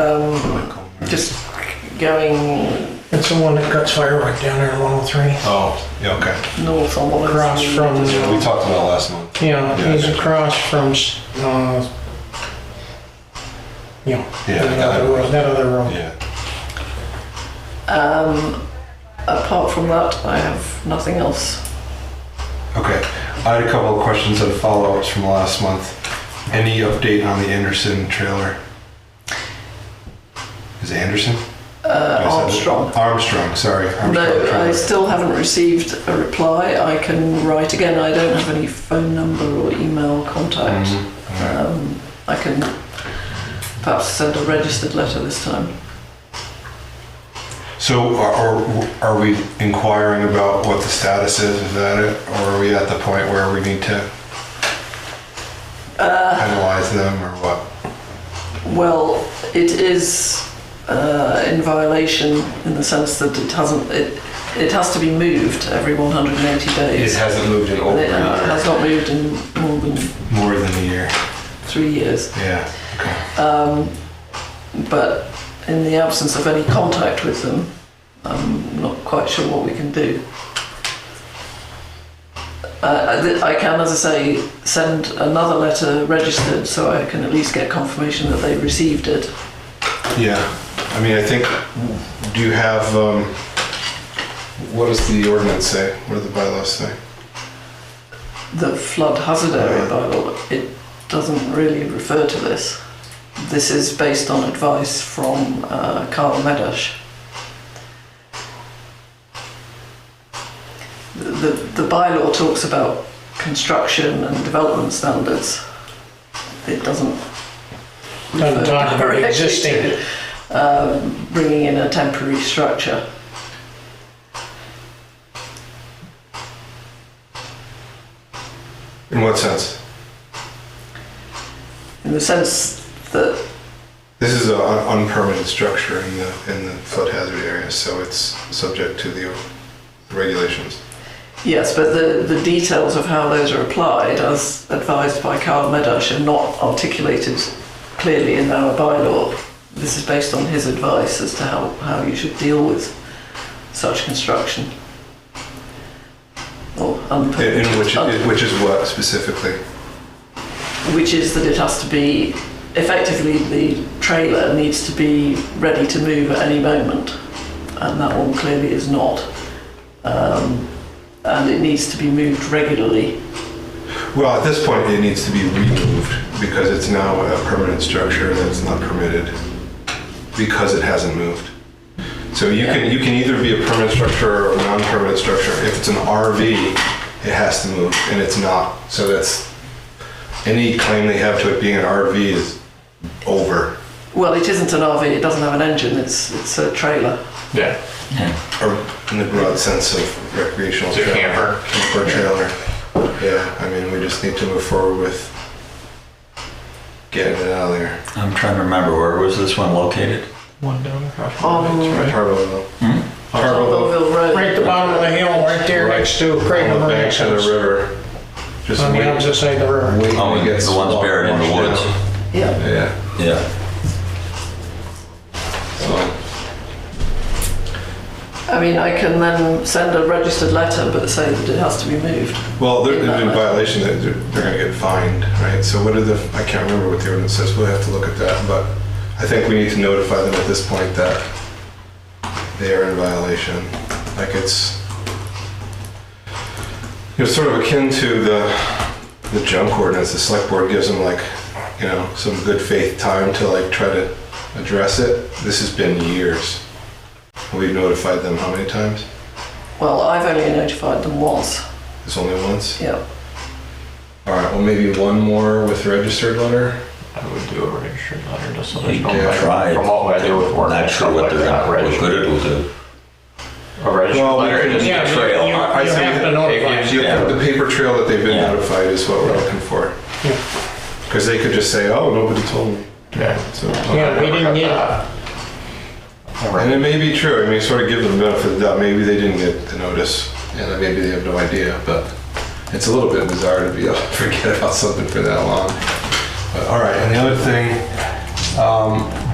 um, just going It's the one that cuts firework down there in 103. Oh, yeah, okay. north on one. Across from- Yeah, we talked about it last month. Yeah, Yeah. he's across from, s- uh, you know, Yeah, that that other road. road, that other road. Yeah. Um, Apart from that, I have nothing else. Okay. I had a couple of questions and follow-ups from last month. Any update on the Anderson trailer? Is it Anderson? Uh, Did I say that? Armstrong. Armstrong, sorry. Armstrong No, I trailer. still haven't received a reply. I can write again. I don't have any phone number or email contact. Mhm. Okay. Um, I can perhaps send a registered letter this time. So are- are, are we inquiring about what the status is of that, or are we at the point where we need to Uh, penalize them or what? Well, it is uh, in violation in the sense that it hasn't. It, it has to be moved every 180 It days. hasn't moved in And over It an has not moved in more than More than a year. three years. Yeah. Okay. Um, but in the absence of any contact with them, I'm not quite sure what we can do. Uh, I th- I can, as I say, send another letter registered so I can at least get confirmation that they received it. Yeah. I mean, I think. Do you have? Um, what does the ordinance say? What do the bylaws say? The flood hazard area Right. bylaw, it doesn't really refer to this. This is based on advice from uh, Carl Medash. The, the, the bylaw talks about construction and development standards. It doesn't. Doesn't refer talk about directly existing. to, um, Bringing in a temporary structure. In what sense? In the sense that This is an un- unpermitted structure in the in the flood hazard area, so it's subject to the regulations. Yes, but the, the details of how those are applied, as advised by Carl Medash, are not articulated clearly in our bylaw. This is based on his advice as to how, how you should deal with such construction. Or In, in unpermitted, which un- uh, in which is what specifically? which is that it has to be effectively the trailer needs to be ready to move at any moment, and that one clearly is not. Um, and it needs to be moved regularly Well, at this point, it needs to be removed because it's now a permanent structure that's not permitted because it hasn't moved. So you can, you can either be a permanent structure or a non-permanent structure. If it's an RV, it has to move and it's not. So that's, any claim they have to it being an RV is over. Well, it isn't an RV. It doesn't have an engine. It's it's a trailer. Yeah. Or in the broad sense of recreational. It's a trailer. camper. Camper trailer. Yeah, I mean, we just need to move forward with getting it out of there. I'm trying to remember where was this one located? One down across from On the next, right? Parallel. Hmm? Parallel. Colville Road. Um, Right at the bottom of the hill, right there Right next to Craig On the Murray's banks of house. the river. Just On the wait- opposite side of the river. wait till Oh, it and gets the one's buried in the washed woods. out. Yeah. Yeah, Yeah. so, I mean, I can then send a registered letter, but say that it has to be moved. well, they're In they're that in way. violation, they're, they're they're gonna get fined, right? So what are the, I can't remember what the ordinance says, we'll have to look at that, but I think we need to notify them at this point that they are in violation, like it's, it's sort of akin to the, the junk ordinance, the select board gives them like, you know, some good faith time to like try to address it. This has been years. We've notified them how many times? Well, I've only notified them once. It's only once. Yeah. All right. Well, maybe one more with registered letter. I would do a registered letter just so there's no. Yeah, back- try it. From what I do with work. Not and sure stuff what like they're that, gonna, what registered- good it'll do. A registered Well, we letter can- is Yeah, a you- trail. you- I- I you think have to it notify gives The- you- Yeah. The paper trail that they've been Yeah. notified is what we're looking for. Yeah. Because they could just say, "Oh, nobody told me." Yeah. So, Yeah, we didn't get- and it may be true. I mean, sort of give them the benefit of the doubt. Maybe they didn't get the notice, and then maybe they have no idea. But it's a little bit bizarre to be able to forget about something for that long. But all right. And the other thing, um,